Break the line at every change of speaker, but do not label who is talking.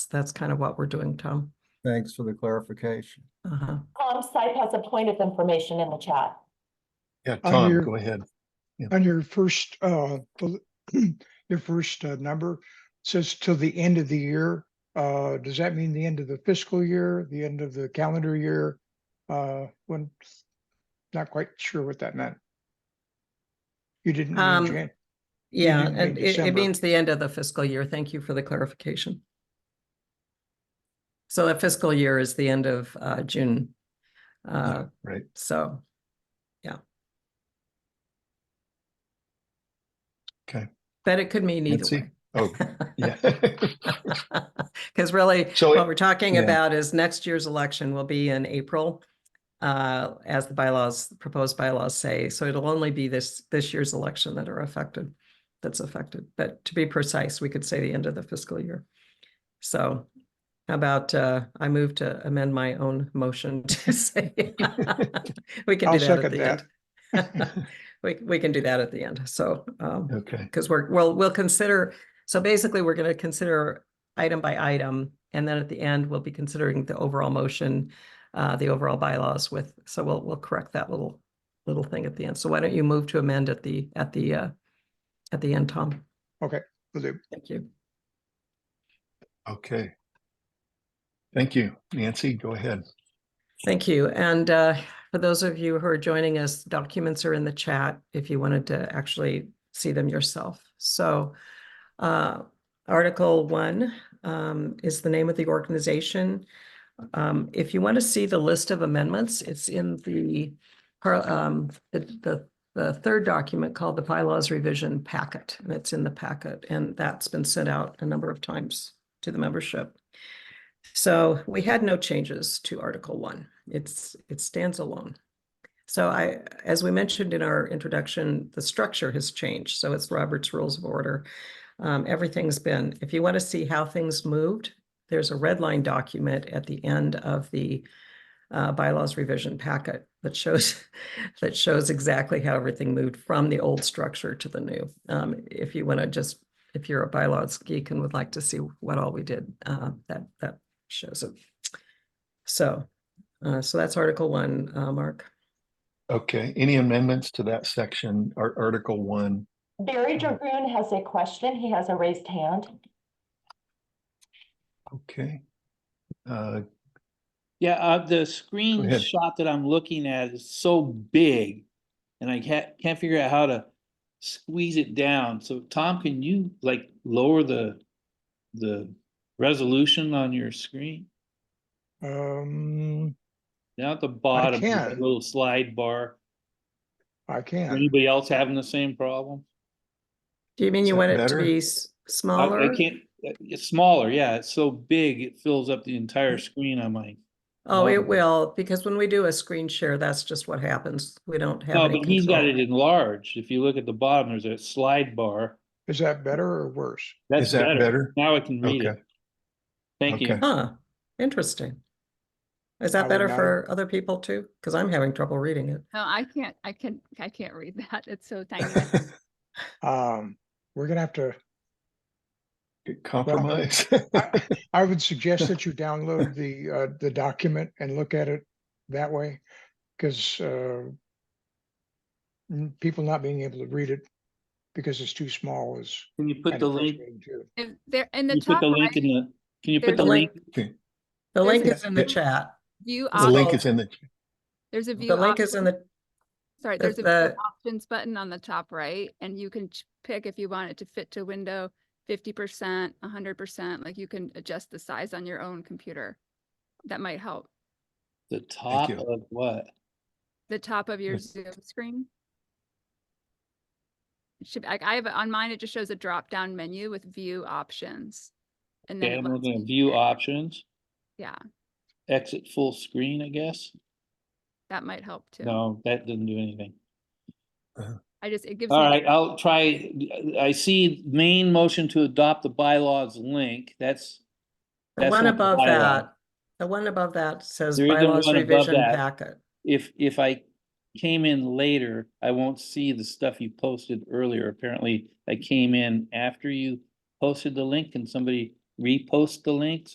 that's kind of what we're doing, Tom.
Thanks for the clarification.
Uh-huh.
Um, Sipe has a point of information in the chat.
Yeah,
On
Tom,
your-
go ahead.
On your first, uh, the- your first uh, number says till the end of the year. Uh, does that mean the end of the fiscal year, the end of the calendar year? Uh, when, not quite sure what that meant. You didn't. mean
Um,
Jan-
Yeah,
didn't mean
and it, it
December.
means the end of the fiscal year. Thank you for the clarification. So the fiscal year is the end of uh June. Uh,
Right.
so,
Okay.
but it could mean either
Nancy?
way.
Oh, yeah.
Because really,
So
what
it-
we're talking
yeah.
about is next year's election will be in April, uh, as the bylaws, proposed bylaws say. So it'll only be this, this year's election that are affected, that's affected. But to be precise, we could say the end of the fiscal year. So how about, uh, I move to amend my own motion to say. We can do
I'll
that at
second
the
that.
end. We, we can do that at the end. So, um,
Okay,
because we're, well, we'll consider, so basically, we're gonna consider item by item, and then at the end, we'll be considering the overall motion, uh, the overall bylaws with, so we'll, we'll correct that little, little thing at the end. So why don't you move to amend at the, at the, uh, at the end, Tom?
Will do.
Thank you.
okay. Thank you. Nancy, go ahead.
Thank you. And uh, for those of you who are joining us, documents are in the chat if you wanted to actually see them yourself. So uh, Article One um, is the name of the organization. Um, If you want to see the list of amendments, it's in the par- um, the, the- the third document called the bylaws revision packet, and it's in the packet, and that's been sent out a number of times to the membership. So we had no changes to Article One. It's, it stands alone. So I, as we mentioned in our introduction, the structure has changed. So it's Robert's Rules of Order. Um, everything's been, if you want to see how things moved, there's a red line document at the end of the uh, bylaws revision packet that shows, that shows exactly how everything moved from the old structure to the new. Um, if you want to just, if you're a bylaws geek and would like to see what all we did, uh, that, that shows it. So, uh, so that's Article One, uh, Mark.
Okay, any amendments to that section, Ar- Article One?
Barry Dragoon has a question. He has a raised hand.
Okay. Uh,
Yeah, uh, the screenshot that I'm looking at is so big and I can't, can't figure out how to squeeze it down. So Tom, can you like lower the, the resolution on your screen?
Um,
Down at the bottom, there's a
can.
little slide bar.
I can.
Anybody else having the same problem?
Do you mean
Is
you
that
want it to
better?
be s-
I-
smaller?
I can't, uh, it's smaller, yeah, it's so big, it fills up the entire screen on my.
Oh, it
model.
will, because when we do a screen share, that's just what happens. We don't have
No,
any
"Oh, but he's got it
control.
enlarged. If you look at the bottom, there's a slide bar.
Is that better or worse?
Is
That's
that
better.
better?
Now I can read
Okay.
it. Thank you.
Okay.
Huh, interesting. Is
I
that
would
better
not-
for other people too? Because I'm having trouble reading it.
No, I can't, I can, I can't read that. It's so tiny. I-
Um, we're gonna have to,
Compromise.
I would suggest that you download the, uh, the document and look at it that way, because, uh, n- people not being able to read it because it's too small is.
Can you put
kinda
the link,
frustrating too.
If there, in
can
the
you put
top
the link in
right,
the, can you put
there's
the
a
link?
link.
Okay,
The link
There's
is in the
it-
chat.
view
The link
option,
is in the,
there's a view.
The link is in
option-
the,
Sorry,
there's
there's a
the-
view options button on the top right and you can ch- pick if you want it to fit to window fifty percent, hundred percent, like you can adjust the size on your own computer. That might help.
The top
you.
of what?
The top of your
Yes.
Zoom screen. It Should, I, I have, it- on mine, it just shows a drop-down menu with view options. And then
Okay,
it
I'm
lets
looking
you
at view
pick.
options,
Yeah,
exit full screen, I guess.
that might help too.
No, that doesn't do anything.
I just, it gives me.
All
the-
right, I'll try, I see main motion to adopt the bylaws link. That's,
the
That's
one
not the
above
bylaw.
that, the one above that says
There is a
bylaws
one above
revision
that.
packet.
if, if I came in later, I won't see the stuff you posted earlier. Apparently, I came in after you posted the link. Can somebody repost the link